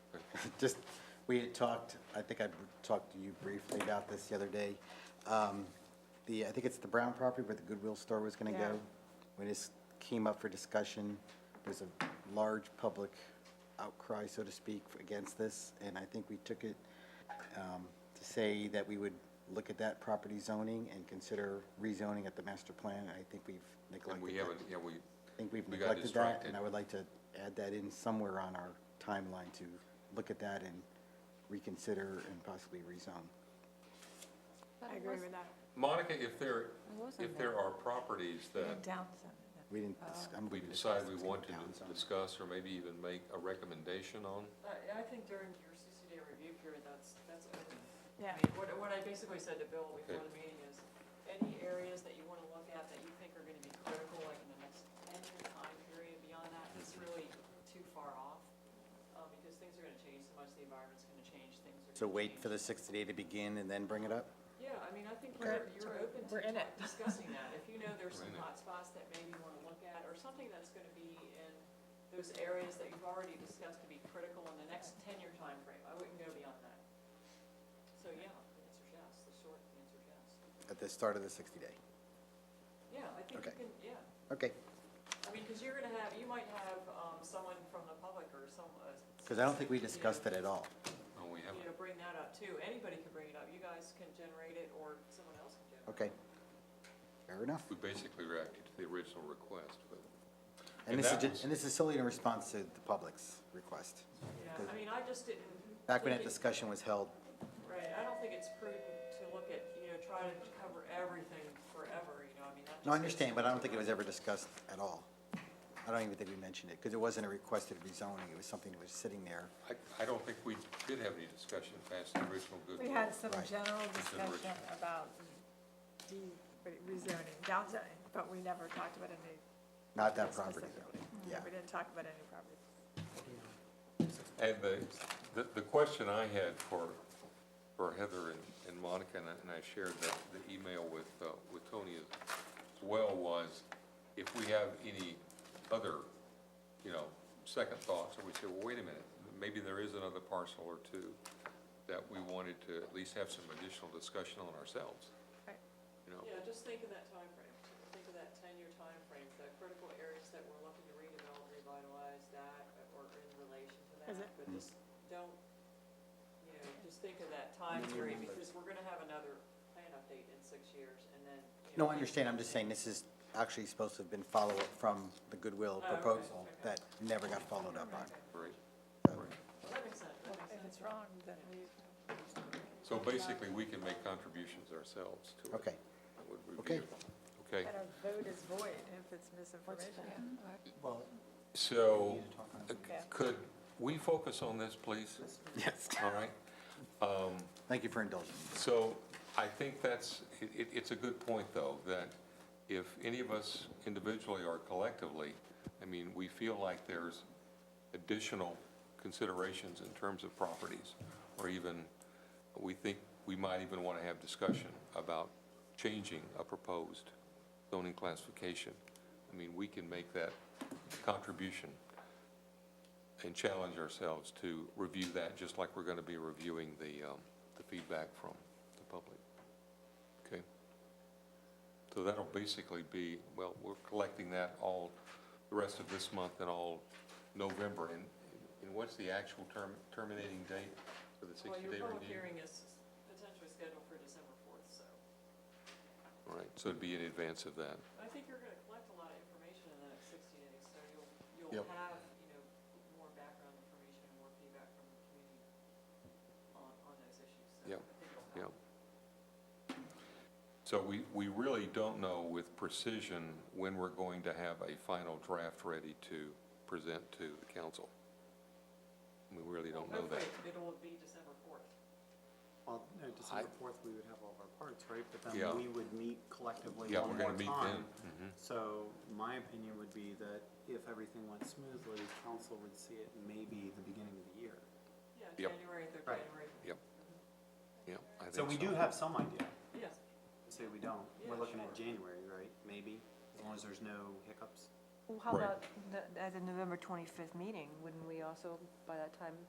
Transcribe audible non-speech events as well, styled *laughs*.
*laughs* just, we had talked, I think I br- talked to you briefly about this the other day. Um, The, I think it's the Brown property where the Goodwill store was gonna go. Yeah. When this came up for discussion, there's a large public outcry, so to speak, against this, and I think we took it um, to say that we would look at that property zoning and consider rezoning at the master plan, and I think we've neglected And that. we haven't, yeah, we. I think we've we got neglected that, distracted. and I would like to add that in somewhere on our timeline to look at that and reconsider and possibly rezone. I agree with that. Monica, if there, I wasn't if there are properties that We didn't, dis- I'm we gonna discuss decide we this want to down some. discuss or maybe even make a recommendation on, I, I think during your sixty-day review period, that's, that's open. Yeah, I mean, what, what I basically said to Bill Okay. before the meeting is, any areas that you wanna look at that you think are gonna be critical, like in the next ten-year time period, beyond that, is Mm-hmm. really too far off. Uh, because things are gonna change so much, the environment's gonna change, things are gonna change. So wait for the 60 day to begin and then bring it up? Yeah, I mean, I think Okay. you're, you're open to We're in it. talk- discussing that. *laughs* If you know there's some We're in it. hot spots that maybe you wanna look at, or something that's gonna be in those areas that you've already discussed to be critical in the next ten-year timeframe, I wouldn't go beyond that. So, yeah, the answer's yes, the short answer's yes. At the start of the 60 day? Yeah, I think you Okay. can, yeah. Okay, I mean, cause you're gonna have, you might have, um, someone from the public or some, uh. because I don't think we you know, discussed it at all. Oh, we You haven't. know, bring that up too. Anybody can bring it up. You guys can generate it or someone else can Okay. generate it. Fair enough. We basically reacted to the original request, but And And this is, that ju- was- and this is solely in response to the public's request. Yeah, I mean, I just didn't. Back when that think it- discussion was held, Right, I don't think it's prudent to look at, you know, try to cover everything forever, you know, I mean, that just. no, I gets understand, but I don't too think it was much. ever discussed at all. I don't even think we mentioned it, because it wasn't a requested rezoning, it was something that was sitting there. I, I don't think we did have any discussion past the original good. we had some Right. general Consideration. discussion about de, rezoning, downzoning, but we never talked about any. Not that property, specifically. though. Yeah. We didn't talk about any property. And the, the, the question I had for, for Heather and, and Monica, and I, and I shared that, the email with, uh, with Tony as well, was if we have any other, you know, second thoughts, and we say, well, wait a minute, maybe there is another parcel or two that we wanted to at least have some additional discussion on ourselves, Right. you know? Yeah, just think of that timeframe, think of that ten-year timeframe, the critical areas that we're looking to redevelop, revitalize that, or in relation to Is that, it- but just don't, you know, just think of that time period, because we're gonna have another plan update in six years, and then. you know, No, I understand, I'm just saying this is actually supposed to have been follow-up from the Goodwill Oh, okay, proposal okay. that never got followed up on. Right, right. Well, That makes sense, that makes If sense. it's wrong, then we. So basically, we can make contributions ourselves to it. Okay. That would be Okay. beautiful. Okay, And our vote is void if it's misinformation. Well. so uh, Yeah. could we focus on this, please? Yes. All right. Um, Thank you for indulging. me. So I think that's, it- it, it's a good point, though, that if any of us individually or collectively, I mean, we feel like there's additional considerations in terms of properties, or even, we think we might even want to have discussion about changing a proposed zoning classification. I mean, we can make that contribution and challenge ourselves to review that, just like we're going to be reviewing the, um, the feedback from the public. Okay? So that'll basically be, well, we're collecting that all, the rest of this month and all November. And, and what's the actual term, terminating date for the Well, your sixty-day public review? hearing is potentially scheduled for December fourth, so Right, so it'd be in advance of that. I think you're gonna collect a lot of information in the next sixty days, so you'll, Yep. you'll have, you know, more background information and more feedback from the community on, on those issues, so Yep, I think it'll Yeah. help. So we, we really don't know with precision when we're going to have a final draft ready to present to the council. We really don't know that. Hopefully, it'll be December fourth. Well, no, December fourth, we would have all of our parts, right? But Yeah. then we would meet collectively Yeah, we're one more gonna meet then. Mhm. time. So my opinion would be that if everything went smoothly, council would see it maybe the beginning of the year. Yeah, Yep. January, third Right. January, Yep. Yep, I think So we do have some idea. yes. Say we don't, we're Yeah, looking at sure. January, right? Maybe, as long as there's no hiccups. Well, how Right. about the- at the November 25th meeting? Wouldn't we also, by that time,